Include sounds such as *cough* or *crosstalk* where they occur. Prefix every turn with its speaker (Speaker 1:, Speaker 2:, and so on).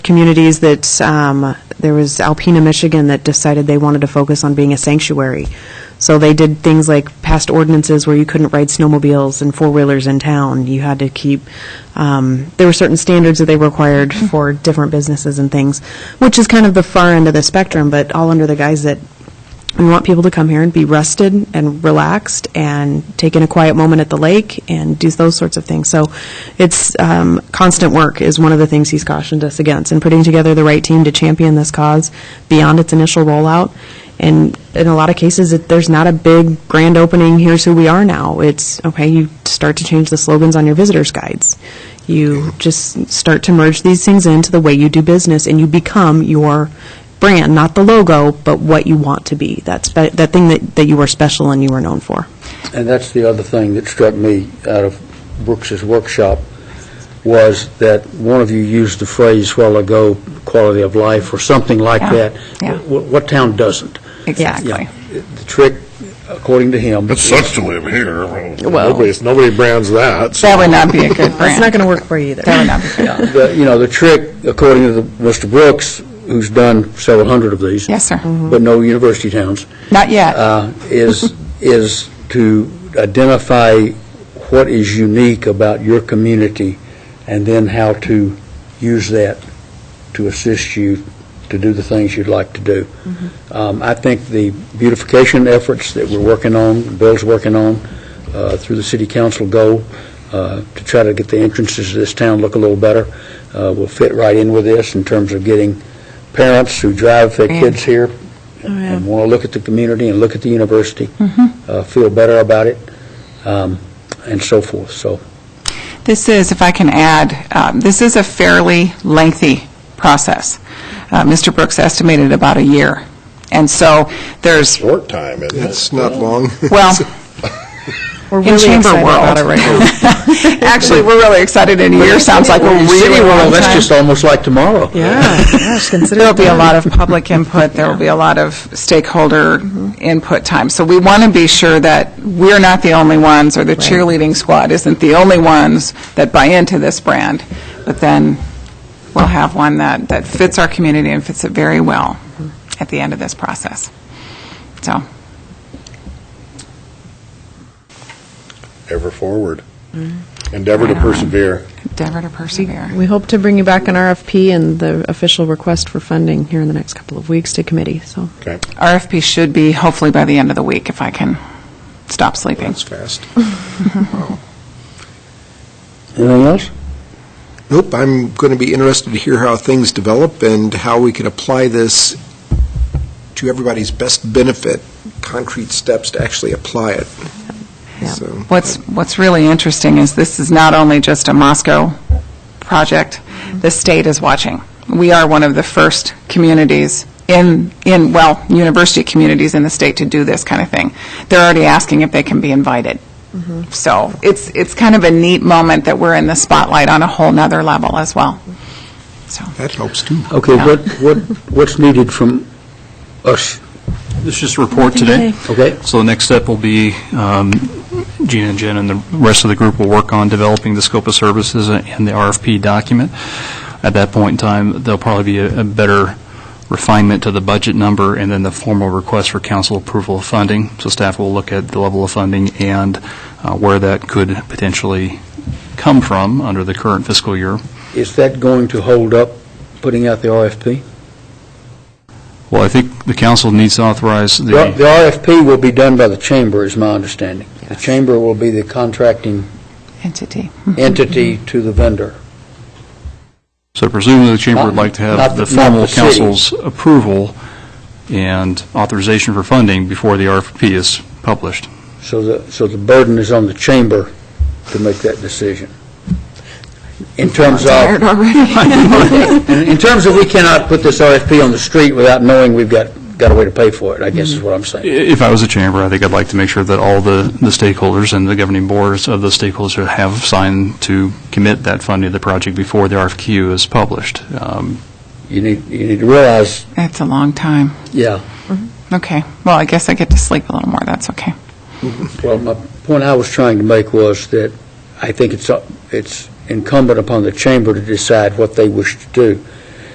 Speaker 1: communities that, um, there was Alpena, Michigan, that decided they wanted to focus on being a sanctuary. So they did things like passed ordinances where you couldn't ride snowmobiles and four-wheelers in town. You had to keep, um, there were certain standards that they required for different businesses and things, which is kind of the far end of the spectrum, but all under the guise that we want people to come here and be rested and relaxed and take in a quiet moment at the lake and do those sorts of things. So it's um, constant work is one of the things he's cautioned us against and putting together the right team to champion this cause beyond its initial rollout. And in a lot of cases, it, there's not a big grand opening, here's who we are now. It's, okay, you start to change the slogans on your visitors' guides. You just start to merge these things into the way you do business and you become your brand, not the logo, but what you want to be. That's that that thing that, that you are special and you are known for.
Speaker 2: And that's the other thing that struck me out of Brooks's workshop, was that one of you used the phrase while ago, quality of life, or something like
Speaker 3: Yeah,
Speaker 2: that.
Speaker 3: yeah.
Speaker 2: Wh- What town doesn't?
Speaker 3: Exactly.
Speaker 2: Yeah. The trick, according to him,
Speaker 4: It's substantive here.
Speaker 3: Well-
Speaker 4: Nobody, nobody brands that. so-
Speaker 3: That would not be a good
Speaker 1: It's not
Speaker 3: brand.
Speaker 1: going to work for you either.
Speaker 3: *laughs* That would not be good.
Speaker 2: the- you know, the trick, according to the- Mr. Brooks, who's done several hundred of these.
Speaker 3: Yes, sir. Mhm.
Speaker 2: But no university towns.
Speaker 3: Not yet.
Speaker 2: uh, Is, is to identify what is unique about your community and then how to use that to assist you to do the things you'd like to do. Um, I think the beautification efforts that we're working on, Bill's working on, uh, through the city council goal, uh, to try to get the entrances to this town look a little better, uh, will fit right in with this in terms of getting parents who drive their kids here and want to look at the community and look at the university, uh, feel better about it, um, and so forth. So
Speaker 3: This is, if I can add, um, this is a fairly lengthy process. Uh, Mr. Brooks estimated about a year. And so there's,
Speaker 4: Short time, isn't it?
Speaker 5: It's not long.
Speaker 3: well,
Speaker 1: *laughs* We're
Speaker 3: in
Speaker 1: really
Speaker 3: chamber
Speaker 1: excited about it right now.
Speaker 3: world. *laughs* Actually, we're really excited, and a year sounds like a really
Speaker 2: City World,
Speaker 3: long
Speaker 2: that's
Speaker 3: time.
Speaker 2: just almost like tomorrow.
Speaker 1: Yeah, gosh, consider
Speaker 3: There'll be a lot of public input, there will be a lot of stakeholder input time. So we want to be sure that we're not the only ones, or the cheerleading squad isn't the only ones that buy into this brand, but then we'll have one that, that fits our community and fits it very well at the end of this process. So,
Speaker 4: Ever forward. Endeavor to persevere.
Speaker 3: endeavor to persevere.
Speaker 1: We hope to bring you back an RFP and the official request for funding here in the next couple of weeks to committee, so.
Speaker 4: Okay,
Speaker 3: RFP should be hopefully by the end of the week, if I can stop sleeping.
Speaker 5: *laughs* That's fast.
Speaker 2: Anything else?
Speaker 5: Nope, I'm going to be interested to hear how things develop and how we can apply this to everybody's best benefit, concrete steps to actually apply it. So,
Speaker 3: What's, what's really interesting is this is not only just a Moscow project, the state is watching. We are one of the first communities in, in, well, university communities in the state to do this kind of thing. They're already asking if they can be invited. So it's, it's kind of a neat moment that we're in the spotlight on a whole nother level as well. So,
Speaker 5: That helps, too.
Speaker 2: Okay, what, what, what's needed from us?
Speaker 6: It's just a report today.
Speaker 2: Okay.
Speaker 6: So the next step will be um, Gina and Jen and the rest of the group will work on developing the scope of services and the RFP document. At that point in time, there'll probably be a a better refinement to the budget number and then the formal request for council approval of funding. So staff will look at the level of funding and uh, where that could potentially come from under the current fiscal year.
Speaker 2: Is that going to hold up putting out the RFP?
Speaker 6: Well, I think the council needs to authorize
Speaker 2: The
Speaker 6: the...
Speaker 2: the RFP will be done by the chamber, is my understanding. The
Speaker 3: Yes.
Speaker 2: chamber will be the contracting
Speaker 3: entity.
Speaker 2: Mm-hmm. entity to the vendor.
Speaker 6: So presumably, the chamber would like to
Speaker 2: Not-
Speaker 6: have the
Speaker 2: not the- not
Speaker 6: formal
Speaker 2: the city.
Speaker 6: council's approval and authorization for funding before the RFP is published.
Speaker 2: So the, so the burden is on the chamber to make that decision. In terms
Speaker 3: Tired
Speaker 2: of, *laughs*
Speaker 3: already.
Speaker 2: in in terms of we cannot put this RFP on the street without knowing we've got, got a way to pay for it, I guess is what I'm
Speaker 6: I-
Speaker 2: saying.
Speaker 6: If I was a chamber, I think I'd like to make sure that all the the stakeholders and the governing boards of the stakeholders have signed to commit that funding to the project before the RFQ is published. Um,
Speaker 2: You need, you need to realize,
Speaker 3: That's a long time.
Speaker 2: yeah,
Speaker 3: Okay, well, I guess I get to sleep a little more, that's okay.
Speaker 2: Well, my point I was trying to make was that I think it's, it's incumbent upon the chamber to decide what they wish to do.